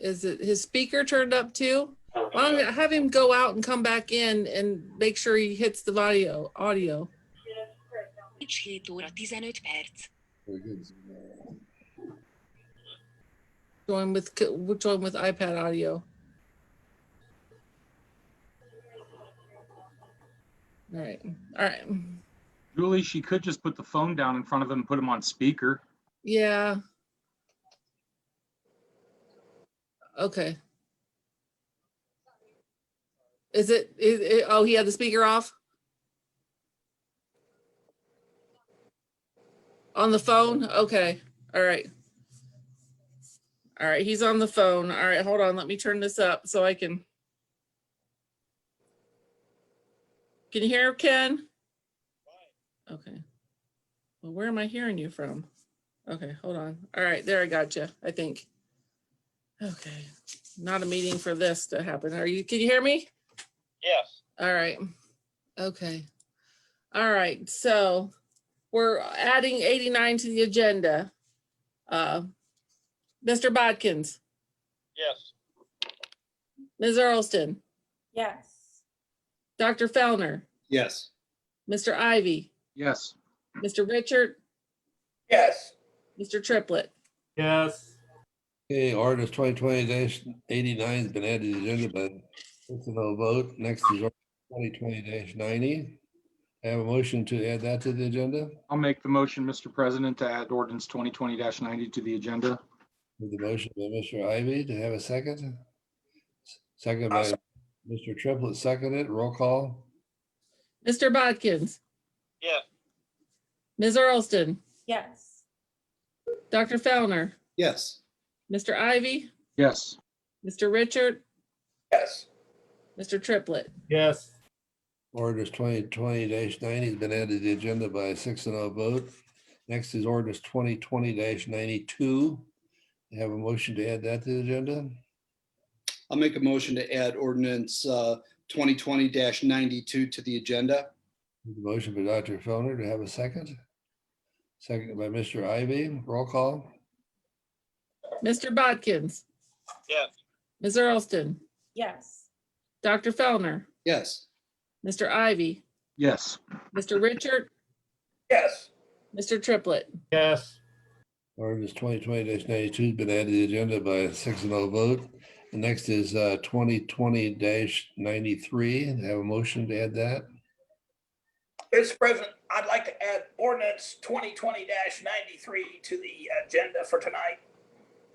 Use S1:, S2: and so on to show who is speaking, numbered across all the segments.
S1: is it his speaker turned up too? Why don't we have him go out and come back in and make sure he hits the audio, audio.
S2: És 7 óra 15 perc.
S1: Join with, join with iPad audio. All right, all right.
S3: Julie, she could just put the phone down in front of him, and put him on speaker.
S1: Yeah. Okay. Is it, is it, oh, he had the speaker off? On the phone? Okay, all right. All right, he's on the phone. All right, hold on, let me turn this up so I can. Can you hear Ken? Okay. Well, where am I hearing you from? Okay, hold on. All right, there I got you, I think. Okay, not a meeting for this to happen. Are you, can you hear me?
S4: Yes,
S1: All right, okay. All right, so we're adding eighty-nine to the agenda. Uh Mr. Bodkins,
S4: yes,
S1: Ms. Earlston,
S5: Yes.
S1: Dr. Fellner,
S6: Yes.
S1: Mr. Ivy,
S3: Yes,
S1: Mr. Richard,
S7: Yes.
S1: Mr. Triplett.
S7: Yes.
S6: Okay, ordinance twenty twenty eighty-nine has been added to the agenda, but it's a no vote. Next is twenty twenty ninety. I have a motion to add that to the agenda.
S3: I'll make the motion, Mr. President, to add ordinance twenty twenty ninety to the agenda.
S6: With the motion by Mr. Ivy to have a second. Second by Mr. Triplett, seconded, roll call.
S1: Mr. Bodkins,
S4: yes,
S1: Ms. Earlston,
S5: Yes.
S1: Dr. Fellner,
S6: Yes.
S1: Mr. Ivy,
S3: Yes,
S1: Mr. Richard,
S7: Yes.
S1: Mr. Triplett.
S7: Yes.
S6: Ordinance twenty twenty ninety has been added to the agenda by a six and a vote. Next is ordinance twenty twenty ninety-two. I have a motion to add that to the agenda.
S8: I'll make a motion to add ordinance uh, twenty twenty ninety-two to the agenda.
S6: The Motion by Dr. Fellner to have a second. Second by Mr. Ivy, roll call.
S1: Mr. Bodkins.
S4: Yes.
S1: Ms. Earlston,
S5: Yes.
S1: Dr. Fellner,
S8: Yes,
S1: Mr. Ivy,
S3: yes,
S1: Mr. Richard,
S7: Yes.
S1: Mr. Triplett.
S7: Yes.
S6: Ordinance twenty twenty ninety-two has been added to the agenda by a six and oh vote. The next is uh, twenty twenty ninety-three. Have a motion to add that.
S7: Mr. President, I'd like to add ordinance twenty twenty ninety-three to the agenda for tonight.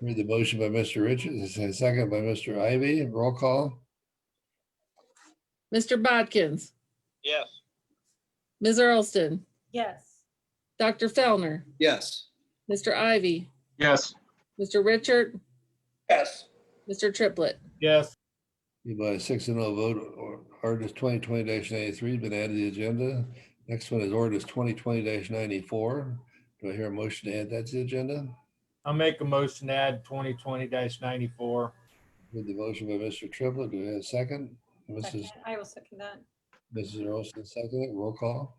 S6: Read the motion by Mr. Richards, a second by Mr. Ivy, roll call.
S1: Mr. Bodkins,
S4: yes,
S1: Ms. Earlston,
S5: Yes.
S1: Dr. Fellner,
S8: yes,
S1: Mr. Ivy,
S3: yes,
S1: Mr. Richard,
S7: Yes.
S1: Mr. Triplett.
S7: Yes.
S6: Be By a six and oh vote, or- ordinance twenty twenty ninety-three has been added to the agenda. Next one is ordinance twenty twenty ninety-four. Do I hear a motion to add that to the agenda?
S7: I'll make a motion to add twenty twenty ninety-four.
S6: With the motion by Mr. Triplett, do we have a second? Mrs.
S5: Second. I will second that.
S6: Mrs. Earlston, second, roll call.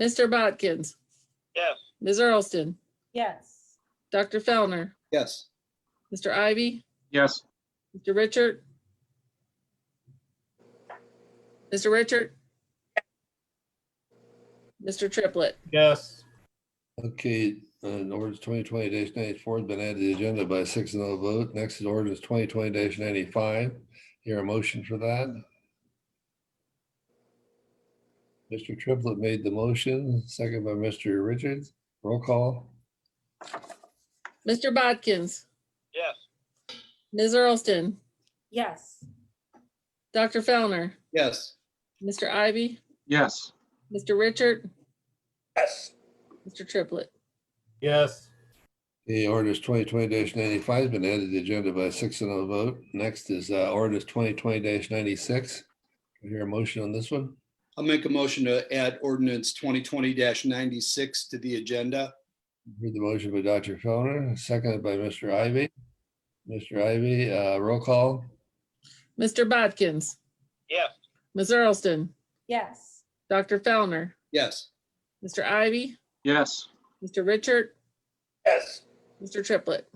S1: Mr. Bodkins,
S4: yes,
S1: Ms. Earlston,
S5: Yes.
S1: Dr. Fellner,
S8: yes,
S1: Mr. Ivy,
S3: yes,
S1: Mr. Richard. Mr. Richard. Mr. Triplett.
S7: Yes.
S6: Okay, uh, ordinance twenty twenty ninety-four has been added to the agenda by a six and oh vote. Next is ordinance twenty twenty ninety-five. Hear a motion for that? Mr. Triplett made the motion, second by Mr. Richards, roll call.
S1: Mr. Bodkins,
S4: yes,
S1: Ms. Earlston,
S5: Yes.
S1: Dr. Fellner,
S8: yes,
S1: Mr. Ivy,
S3: yes,
S1: Mr. Richard,
S7: Yes.
S1: Mr. Triplett.
S7: Yes.
S6: The ordinance twenty twenty ninety-five has been added to the agenda by a six and oh vote. Next is uh, ordinance twenty twenty ninety-six. Do I Hear a motion on this one?
S8: I'll make a motion to add ordinance twenty twenty ninety-six to the agenda.
S6: Heard the motion by Dr. Fellner, seconded by Mr. Ivy. Mr. Ivy, uh, roll call.
S1: Mr. Bodkins,
S4: yes,
S1: Ms. Earlston,
S5: Yes.
S1: Dr. Fellner,
S8: Yes,
S1: Mr. Ivy,
S3: yes,
S1: Mr. Richard,
S7: Yes.
S1: Mr. Triplett.